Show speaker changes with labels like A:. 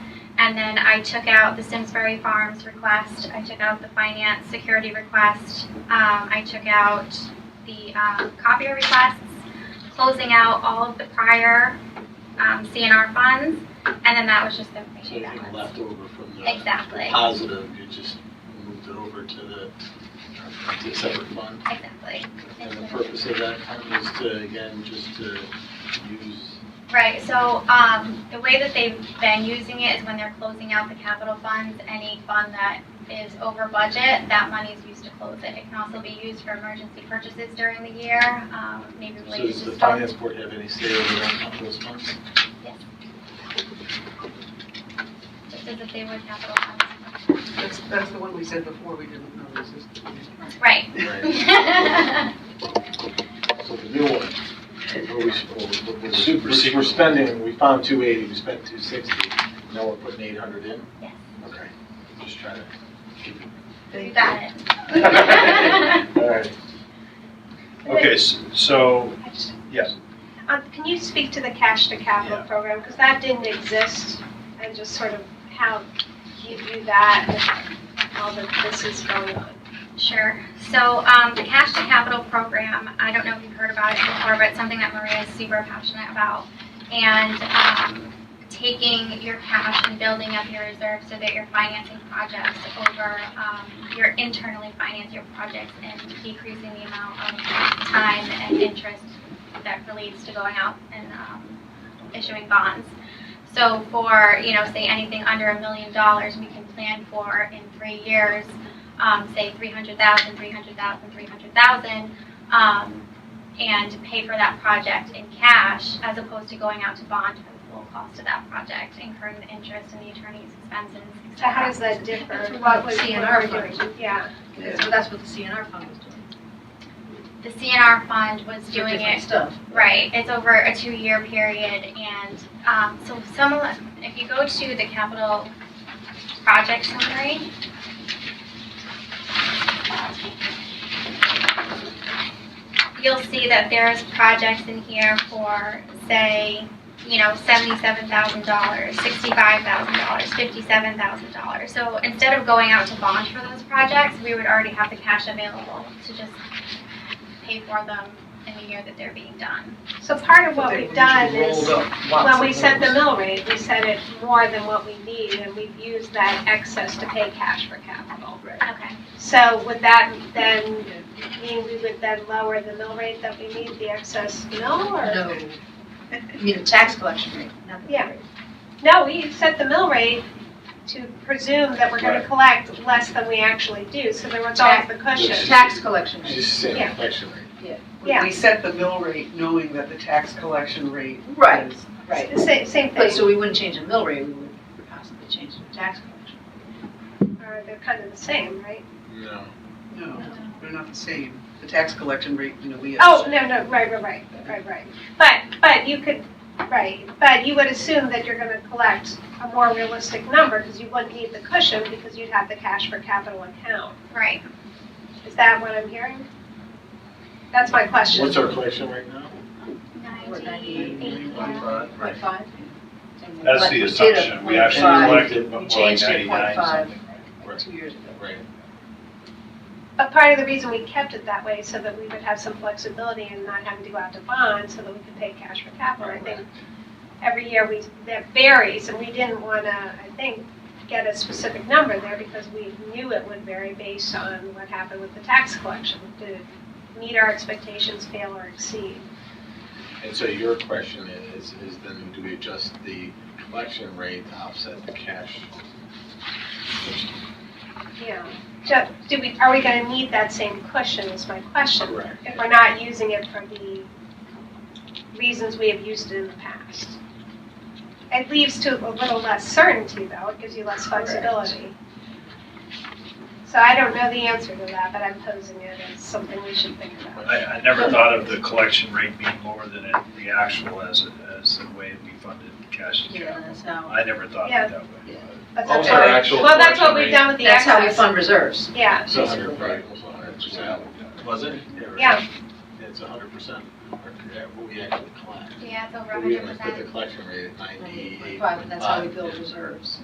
A: And then I took out the Simsbury Farms request, I took out the finance security request, um, I took out the, um, copier requests, closing out all of the prior, um, CNR funds, and then that was just the
B: So
A: information
B: anything
A: balance.
B: left over from the
A: Exactly,
B: positive, you just moved it over to the, to a separate fund.
A: exactly.
B: And the purpose of that fund is to, again, just to use,
A: Right, so, um, the way that they've been using it is when they're closing out the capital funds, any fund that is over budget, that money is used to close it. It can also be used for emergency purchases during the year, um, maybe
B: so
A: related
B: does
A: to
B: the
A: storm.
B: finance board have any say over on those funds?
A: Just as if they were capital funds.
C: That's, that's the one we said before, we didn't know existed.
A: Right.
B: Right. So the new one, what we, what we-
D: Super
B: we're, we're
D: secret.
B: spending, we found two eighty, we spent two sixty, now we're putting eight hundred in?
A: Yes.
B: Okay, just trying to keep it.
A: You got it.
B: All right.
D: Okay, s- so,
E: I just-
D: yes.
E: Um, Can you speak to the cash to capital program? Because that didn't exist, and just sort of how you view that, and all that this is going on.
A: Sure. So um, the Cash to Capital program, I don't know if you've heard about it before, but it's something that Maria is super passionate about. And um, taking your cash and building up your reserves so that you're financing projects over, um, you're internally financing your projects and decreasing the amount of time and interest that relates to going out and um, issuing bonds. So for, you know, say anything under a million dollars, we can plan for in three years um, say 300,000, 300,000, 300,000, um, and pay for that project in cash as opposed to going out to bond for the full cost of that project, incurring the interest and the attorney's expenses. et
E: So
A: cetera.
E: how does that differ?
F: That's
E: What
F: what
E: was
F: CNR
E: doing? Yeah.
F: That's what, that's what the CNR fund was doing.
A: The CNR fund was
F: For
A: doing
F: different
A: it
F: Stuff.
A: Right, it's over a two-year period, and um, so some, of the- if you go to the capital project summary, you'll see that there's projects in here for, say, you know, seventy-seven thousand dollars, sixty-five thousand dollars, fifty-seven thousand dollars. So instead of going out to bond for those projects, we would already have the cash available to just pay for them in the year that they're being done.
E: So part of what we've done is, when we set the
C: them
E: mill rate, we set it more than what we need, and we've used that excess to pay cash for capital.
A: Okay.
E: So would that then mean we would then lower the mill rate that we need, the excess mill, or?
F: No. You mean the tax collection rate, not the.
E: Yeah. No, we set the mill rate to presume that we're gonna collect less than we actually do, so there was always the
B: Yes.
E: cushion.
F: Tax collection rate.
B: She's saying
E: Yeah.
B: inflation rate.
E: Yeah.
C: We set the mill rate knowing that the tax collection rate
F: Right,
C: is.
F: right.
E: The Same, same
F: But
E: thing,
F: so we wouldn't change the mill rate, we would possibly change the tax collection.
E: or Uh, they're kind of the same, right?
B: No.
C: No, they're not the same. The tax collection rate, you know, we.
E: Oh, no, no, right, right, right, right, right. But, but you could, right, but you would assume that you're gonna collect a more realistic number, because you wouldn't need the cushion, because you'd have the cash for capital account.
A: Right.
E: Is that what I'm hearing? That's my question.
B: What's our collection right now?
A: Ninety-eight, yeah.
F: Point
B: Right.
F: five?
D: That's the assumption. We actually
B: five.
D: collected more
F: You
D: like
F: changed it
D: 99
F: point five
D: something.
F: two years ago.
B: Right.
E: But part of the reason we kept it that way so that we would have some flexibility and not having to go out to bond so that we could pay cash for capital. I think every year we, that varies and we didn't want to, I think, get a specific number there because we knew it would vary based on what happened with the tax collection. Did it meet our expectations, fail or exceed?
B: And so your question is, is then do we adjust the collection rate to offset the cash?
E: Yeah. Ju- Do we, are we going to need that same cushion is my question.
B: Correct.
E: If we're not using it for the reasons we have used it in the past. It leaves to a little less certainty though, it gives you less flexibility. So I don't know the answer to that, but I'm posing it as something we should think about.
D: I, I never thought of the collection rate being lower than it- the actual as, as the way we funded cash to
F: Yeah,
D: capital.
F: that's how,
D: I never thought
E: Yeah.
D: of it that way.
E: But
B: What was
E: that's
B: our
E: what-
B: actual
E: Well, that's what
B: collection
E: we've
B: rate?
E: done with the
F: that's how we
E: excess.
F: fund reserves.
E: Yeah,
B: It's a hundred, right, it was a hundred percent. Was it?
E: Yeah.
B: It's a hundred percent, yeah, what we actually collect.
A: Yeah, it's over
B: But we
A: hundred
B: only put the
A: percent.
B: collection rate at ninety-eight
F: Point five, and that's how we build reserves.